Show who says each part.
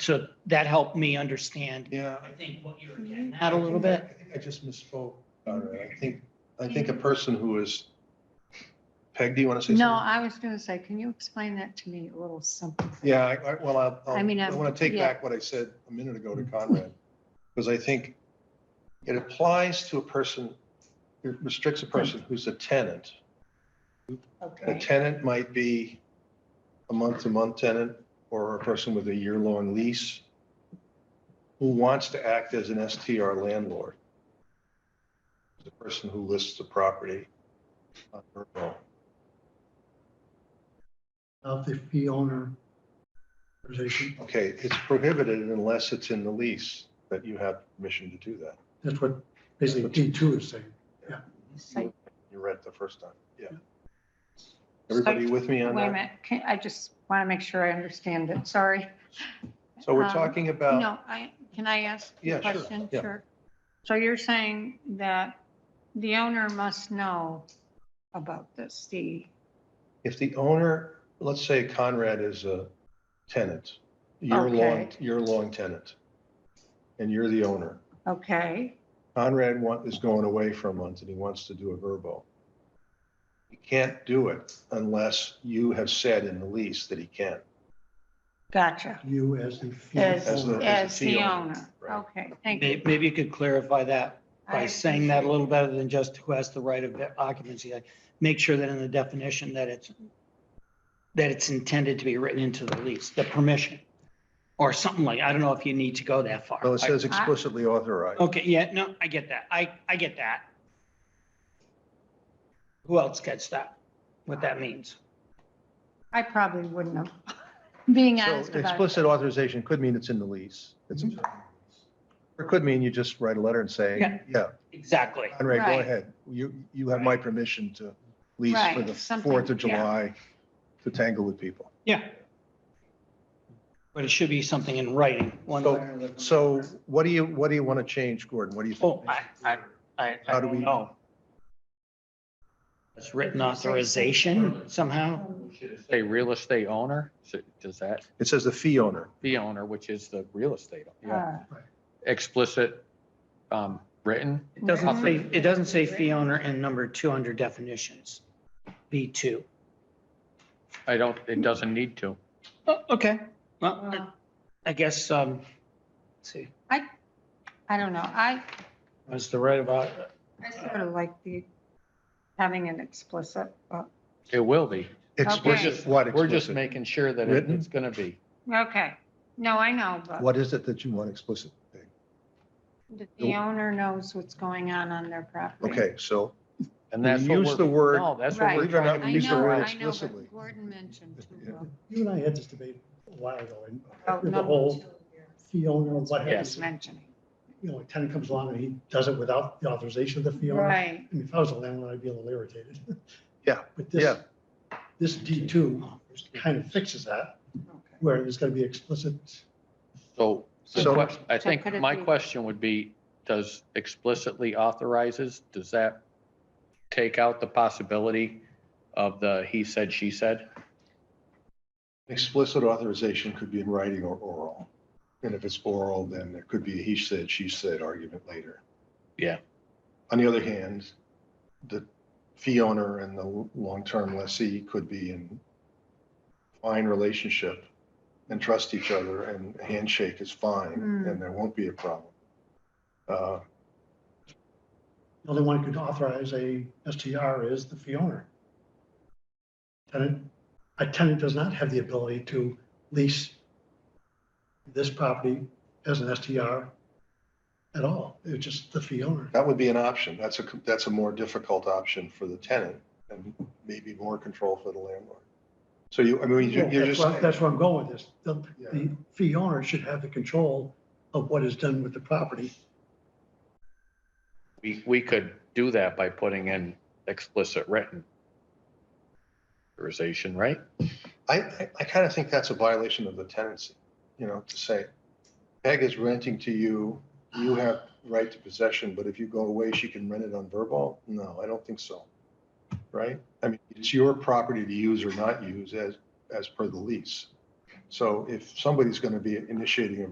Speaker 1: So that helped me understand,
Speaker 2: Yeah.
Speaker 1: I think, what you were
Speaker 3: Mm-hmm.
Speaker 1: getting at a little
Speaker 2: I
Speaker 1: bit.
Speaker 2: think I just misspoke. All right. I think, I think a person who is, Peg, do you want to say something?
Speaker 3: No, I was gonna say, can you explain that to me a little something?
Speaker 2: Yeah, I, I- well, I'll- I'll,
Speaker 3: I mean,
Speaker 2: I
Speaker 3: I've-
Speaker 2: want to take
Speaker 3: yeah.
Speaker 2: back what I said a minute ago to Conrad, because I think it applies to a person, it restricts a person who's a tenant. A
Speaker 3: Okay.
Speaker 2: tenant might be a month-to-month tenant or a person with a year-long lease who wants to act as an STR landlord. The person who lists the property. on her own.
Speaker 4: of the fee owner position.
Speaker 2: Okay, it's prohibited unless it's in the lease that you have permission to do that.
Speaker 4: That's what basically D two is saying.
Speaker 3: Site-
Speaker 2: You read the first time, yeah.
Speaker 3: Site-
Speaker 2: Everybody with me
Speaker 3: Wait a
Speaker 2: on that?
Speaker 3: minute, can, I just wanna make sure I understand it, sorry.
Speaker 2: So we're
Speaker 3: Um,
Speaker 2: talking about,
Speaker 3: No, I, can I ask a
Speaker 2: Uh, Yeah, sure,
Speaker 3: question?
Speaker 2: yeah.
Speaker 3: Sure. So you're saying that the owner must know about this, the,
Speaker 2: if the owner, let's say Conrad is a tenant, year-long,
Speaker 3: Okay.
Speaker 2: year-long tenant, and you're the owner.
Speaker 3: okay,
Speaker 2: Conrad want, is going away for a month and he wants to do a verbo. He can't do it unless you have said in the lease that he can.
Speaker 3: gotcha.
Speaker 4: You as the fee
Speaker 3: As,
Speaker 2: the-
Speaker 4: owner.
Speaker 3: as the owner,
Speaker 2: right.
Speaker 3: okay, thank you.
Speaker 1: May- Maybe you could clarify that by
Speaker 3: I
Speaker 1: saying that a
Speaker 3: appreciate
Speaker 1: little better than just who has the right of occupancy. Like, Make sure that in the definition that it's, that it's intended to be written into the lease, the permission, or something like, I don't know if you need to go that far.
Speaker 2: Well, it says
Speaker 3: I-
Speaker 2: explicitly authorized.
Speaker 1: Okay, yeah, no, I get that. I, I get that. Who else gets that? What that means?
Speaker 3: I probably wouldn't have, being
Speaker 2: So
Speaker 3: honest about it. Mm-hmm.
Speaker 2: Explicit authorization could mean it's in the lease. It's, or it could mean you just write a letter and say,
Speaker 1: Yeah.
Speaker 2: yeah,
Speaker 1: Exactly.
Speaker 2: Conrad, go
Speaker 3: Right.
Speaker 2: ahead. You, you have my permission to lease for
Speaker 3: Right,
Speaker 2: the
Speaker 3: something,
Speaker 2: 4th of
Speaker 3: yeah.
Speaker 2: July to tangle with people.
Speaker 1: Yeah. But it should be something in writing, one
Speaker 2: So-
Speaker 1: way or the other.
Speaker 2: So what do you, what do you want to change, Gordon? What do you
Speaker 1: Oh,
Speaker 2: think?
Speaker 1: I, I, I,
Speaker 2: How
Speaker 1: I
Speaker 2: do we-
Speaker 1: don't know. It's written authorization somehow?
Speaker 5: Should it say real estate owner? Should- Does that,
Speaker 2: It says the fee owner.
Speaker 5: fee owner, which is the real estate, yeah,
Speaker 3: Uh,
Speaker 5: explicit, um, written?
Speaker 1: It doesn't say,
Speaker 3: Mhm.
Speaker 1: it doesn't say fee owner in number two under definitions, B two.
Speaker 5: I don't, it doesn't need to.
Speaker 1: Oh, Okay, well, I-
Speaker 3: well,
Speaker 1: I guess, um, let's see,
Speaker 3: I don't know, I,
Speaker 1: was the right about,
Speaker 3: I sort of like the, having an explicit, uh,
Speaker 5: It will be.
Speaker 2: Explicit, what
Speaker 5: We're just
Speaker 2: explicit?
Speaker 5: making sure that it-
Speaker 2: Written?
Speaker 5: it's gonna be.
Speaker 3: okay, no, I know, but.
Speaker 2: What is it that you want explicit?
Speaker 3: That the owner knows what's going on on their property.
Speaker 2: Okay, so
Speaker 5: And
Speaker 2: We
Speaker 5: that's what
Speaker 2: use
Speaker 5: we're-
Speaker 2: the word-
Speaker 5: No, that's what we're
Speaker 3: Right.
Speaker 5: trying
Speaker 3: I
Speaker 5: to
Speaker 2: Use the
Speaker 3: know,
Speaker 2: word
Speaker 3: I know, but
Speaker 2: explicitly.
Speaker 3: Gordon mentioned. too, uh,
Speaker 2: Yeah.
Speaker 3: well,
Speaker 4: You and I had this debate a while ago and
Speaker 3: oh,
Speaker 4: with the
Speaker 3: number
Speaker 4: whole
Speaker 3: two here.
Speaker 4: fee owner and what
Speaker 3: He's
Speaker 4: happens.
Speaker 3: mentioning.
Speaker 4: You know, a tenant comes along and he does it without the authorization of the fee owner. I
Speaker 3: Right,
Speaker 4: mean, if I was a landlord, I'd be a little irritated.
Speaker 2: Yeah,
Speaker 4: But this,
Speaker 2: yeah.
Speaker 4: this D two kind of fixes that
Speaker 3: okay.
Speaker 4: where there's gonna be explicit.
Speaker 5: So, the
Speaker 2: So-
Speaker 5: quest- I
Speaker 3: So
Speaker 5: think
Speaker 3: could it
Speaker 5: my
Speaker 3: be-
Speaker 5: question would be, does explicitly authorizes, does that take out the possibility of the he said, she said?
Speaker 2: Explicit authorization could be in writing or oral. And if it's oral, then there could be a he said, she said argument later.
Speaker 5: Yeah.
Speaker 2: On the other hand, the fee owner and the long-term lessee could be in fine relationship and trust each other and handshake is fine
Speaker 3: Hmm.
Speaker 2: and there won't be a problem. Uh,
Speaker 4: The only one who can authorize a STR is the fee owner. Tenant, a tenant does not have the ability to lease this property as an STR at all. It's just the fee owner.
Speaker 2: That would be an option. That's a, that's a more difficult option for the tenant and maybe more control for the landlord. So you, I mean, you're you're
Speaker 4: That's
Speaker 2: just.
Speaker 4: where, that's where I'm going with this. The,
Speaker 2: Yeah.
Speaker 4: the fee owner should have the control of what is done with the property.
Speaker 5: We, we could do that by putting in explicit written authorization, right?
Speaker 2: I, I, I kind of think that's a violation of the tenancy, you know, to say, Peg is renting to you, you have right to possession, but if you go away, she can rent it on verbal? No, I don't think so. Right? I mean, it's your property to use or not use as, as per the lease. So if somebody's going to be initiating a